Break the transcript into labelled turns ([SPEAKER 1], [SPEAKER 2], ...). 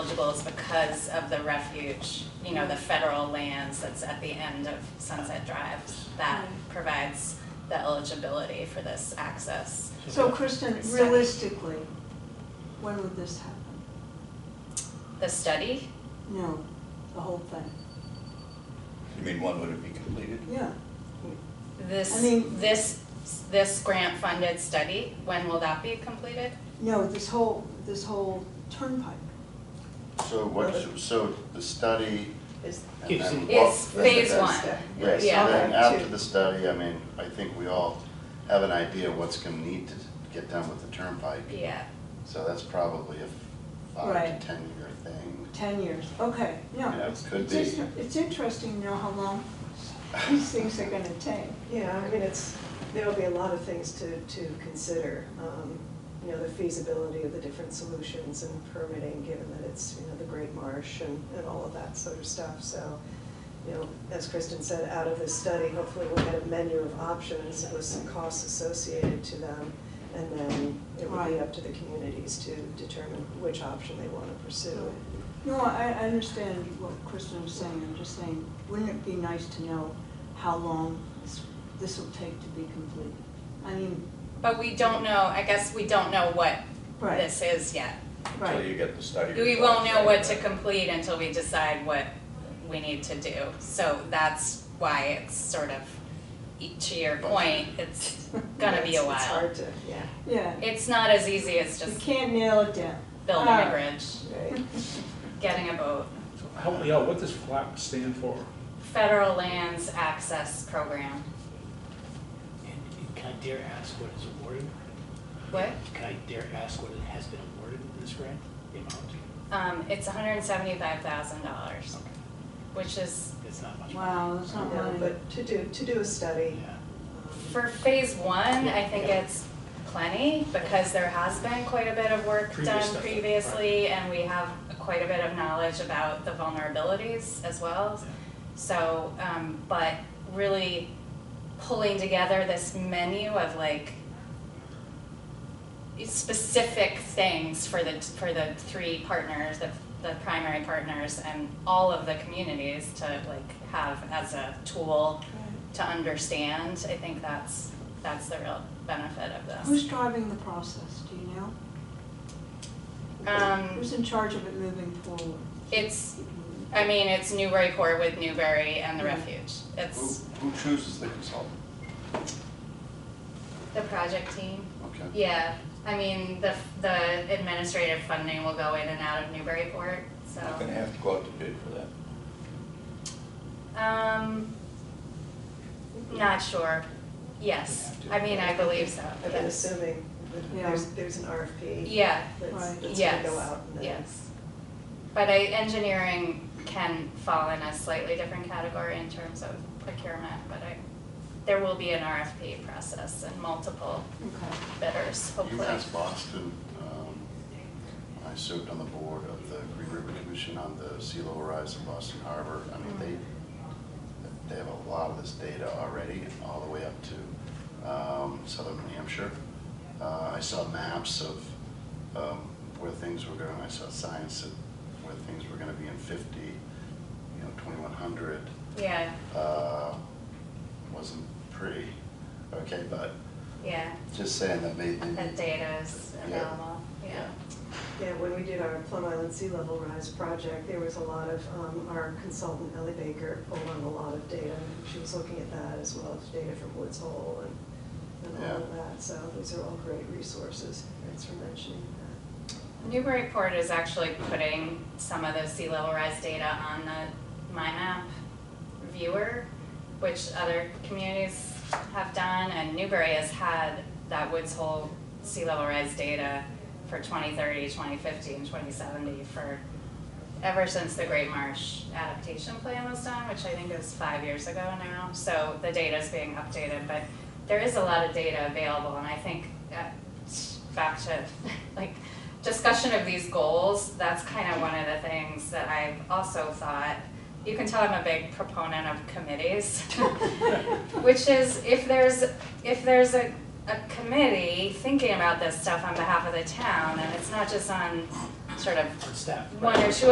[SPEAKER 1] vehicles because of the refuge, you know, the federal lands that's at the end of Sunset Drive that
[SPEAKER 2] Mm-hmm.
[SPEAKER 1] provides the eligibility for this access.
[SPEAKER 2] So Kristen, realistically, when would this happen?
[SPEAKER 1] The study,
[SPEAKER 2] No, the whole thing,
[SPEAKER 3] You mean, when would it be completed?
[SPEAKER 2] yeah. I
[SPEAKER 1] this,
[SPEAKER 2] mean-
[SPEAKER 1] this, this grant funded study, when will that be completed?
[SPEAKER 2] No, this whole, this whole turnpike.
[SPEAKER 4] So what, so the study,
[SPEAKER 5] Is,
[SPEAKER 4] and then what?
[SPEAKER 1] It's
[SPEAKER 4] then the
[SPEAKER 1] phase
[SPEAKER 4] next
[SPEAKER 1] one.
[SPEAKER 4] step. Yes,
[SPEAKER 1] Yeah.
[SPEAKER 4] and then
[SPEAKER 5] Okay.
[SPEAKER 4] after the study, I mean, I think we all have an idea what's gonna need to get done with the turnpike.
[SPEAKER 1] Yeah,
[SPEAKER 4] So that's probably a
[SPEAKER 2] Right.
[SPEAKER 4] five to ten year thing.
[SPEAKER 2] Ten years, okay, no.
[SPEAKER 4] Yeah, it could
[SPEAKER 2] It's
[SPEAKER 4] be.
[SPEAKER 2] inter- It's interesting to know how long these things are gonna take.
[SPEAKER 5] yeah, I mean, it's, there'll be a lot of things to, to consider. um, You know, the feasibility of the different solutions and permitting, given that it's, you know, the Great Marsh and, and all of that sort of stuff. So, you know, as Kristen said, out of this study, hopefully we'll get a menu of options with some costs associated to them. And then it would be
[SPEAKER 2] Right.
[SPEAKER 5] up to the communities to determine which option they want to pursue.
[SPEAKER 2] No, I, I understand what Kristen was saying, I'm just saying, wouldn't it be nice to know how long this, this will take to be completed? I mean,
[SPEAKER 1] but we don't know, I guess we don't know what
[SPEAKER 2] right,
[SPEAKER 1] this is yet.
[SPEAKER 3] Until
[SPEAKER 2] right,
[SPEAKER 3] you get the study.
[SPEAKER 1] We won't know what
[SPEAKER 3] results,
[SPEAKER 1] to
[SPEAKER 3] right?
[SPEAKER 1] complete until we decide what we need to do. So that's why it's sort of, to your point, it's gonna be a
[SPEAKER 5] It's- It's
[SPEAKER 1] while.
[SPEAKER 5] hard to, yeah.
[SPEAKER 2] yeah.
[SPEAKER 1] It's not as easy as
[SPEAKER 2] You
[SPEAKER 1] just
[SPEAKER 2] can't Ah. nail it down.
[SPEAKER 1] building a
[SPEAKER 2] Alright.
[SPEAKER 1] bridge,
[SPEAKER 5] Right.
[SPEAKER 1] getting a boat.
[SPEAKER 6] So Help me out, what does FLAP stand for?
[SPEAKER 1] Federal lands access program.
[SPEAKER 7] And and can I dare ask what is awarded?
[SPEAKER 1] What?
[SPEAKER 7] Can I dare ask what it has been awarded in this grant, the amount?
[SPEAKER 1] Um, it's hundred and seventy-five thousand dollars,
[SPEAKER 7] Okay,
[SPEAKER 1] which is,
[SPEAKER 7] It's not much.
[SPEAKER 2] Wow, that's not
[SPEAKER 5] No,
[SPEAKER 2] money.
[SPEAKER 5] but to do, to do a study, um,
[SPEAKER 7] Yeah,
[SPEAKER 1] for phase one, I think
[SPEAKER 7] Yeah.
[SPEAKER 1] it's plenty, because there has been quite a bit of work
[SPEAKER 7] Previous
[SPEAKER 1] done
[SPEAKER 7] stuff, right.
[SPEAKER 1] previously, and we have quite a bit of knowledge about the vulnerabilities as well.
[SPEAKER 7] yeah.
[SPEAKER 1] So, um, but really pulling together this menu of like specific things for the, for the three partners, the, the primary partners and all of the communities to like have as a tool to understand, I think that's, that's the real benefit of this.
[SPEAKER 2] Who's driving the process, do you know?
[SPEAKER 1] Um,
[SPEAKER 2] Who's in charge of it moving forward?
[SPEAKER 1] it's, I mean, it's Newburyport with Newbury and the Refuge.
[SPEAKER 4] Who,
[SPEAKER 1] It's
[SPEAKER 4] who chooses the consultant?
[SPEAKER 1] the project team.
[SPEAKER 4] Okay.
[SPEAKER 1] Yeah, I mean, the, the administrative funding will go in and out of Newburyport, so.
[SPEAKER 3] You're gonna have to go out to bid for that.
[SPEAKER 1] Um, not sure, yes, I mean, I believe so,
[SPEAKER 5] I've been
[SPEAKER 1] yes.
[SPEAKER 5] assuming that there's, there's an RFP
[SPEAKER 1] Yeah,
[SPEAKER 5] that's,
[SPEAKER 2] Right.
[SPEAKER 5] that's gonna go
[SPEAKER 1] yes,
[SPEAKER 5] out and then
[SPEAKER 1] yes. But I, engineering can fall in a slightly different category in terms of procurement, but I, there will be an RFP process and multiple
[SPEAKER 2] Okay.
[SPEAKER 1] bidders, hopefully.
[SPEAKER 4] UMass Boston, um, I served on the board of the Green River Commission on the sea level rise in Boston Harbor. I mean, they, they have a lot of this data already, all the way up to um, southern New Hampshire. Uh, I saw maps of um, where things were going, I saw science of where things were gonna be in fifty, you know, twenty-one hundred
[SPEAKER 1] Yeah,
[SPEAKER 4] uh, wasn't pretty. Okay, but
[SPEAKER 1] yeah,
[SPEAKER 4] just saying that maybe.
[SPEAKER 1] that data is
[SPEAKER 4] Yeah.
[SPEAKER 1] available, yeah.
[SPEAKER 5] Yeah, when we did our Plum Island Sea Level Rise project, there was a lot of, um, our consultant Ellie Baker pulled on a lot of data. She was looking at that as well as data from Woods Hole and, and all of that, so these are all great resources. Thanks for mentioning that.
[SPEAKER 1] Newburyport is actually putting some of the sea level rise data on the MyMap viewer, which other communities have done, and Newbury has had that Woods Hole sea level rise data for 2030, 2050, and 2070 for, ever since the Great Marsh adaptation plan was done, which I think is five years ago now, so the data is being updated, but there is a lot of data available, and I think, uh, back to, like, discussion of these goals, that's kind of one of the things that I've also thought. You can tell I'm a big proponent of committees, which is if there's, if there's a, a committee thinking about this stuff on behalf of the town, and it's not just on sort of
[SPEAKER 7] On staff.
[SPEAKER 1] one or two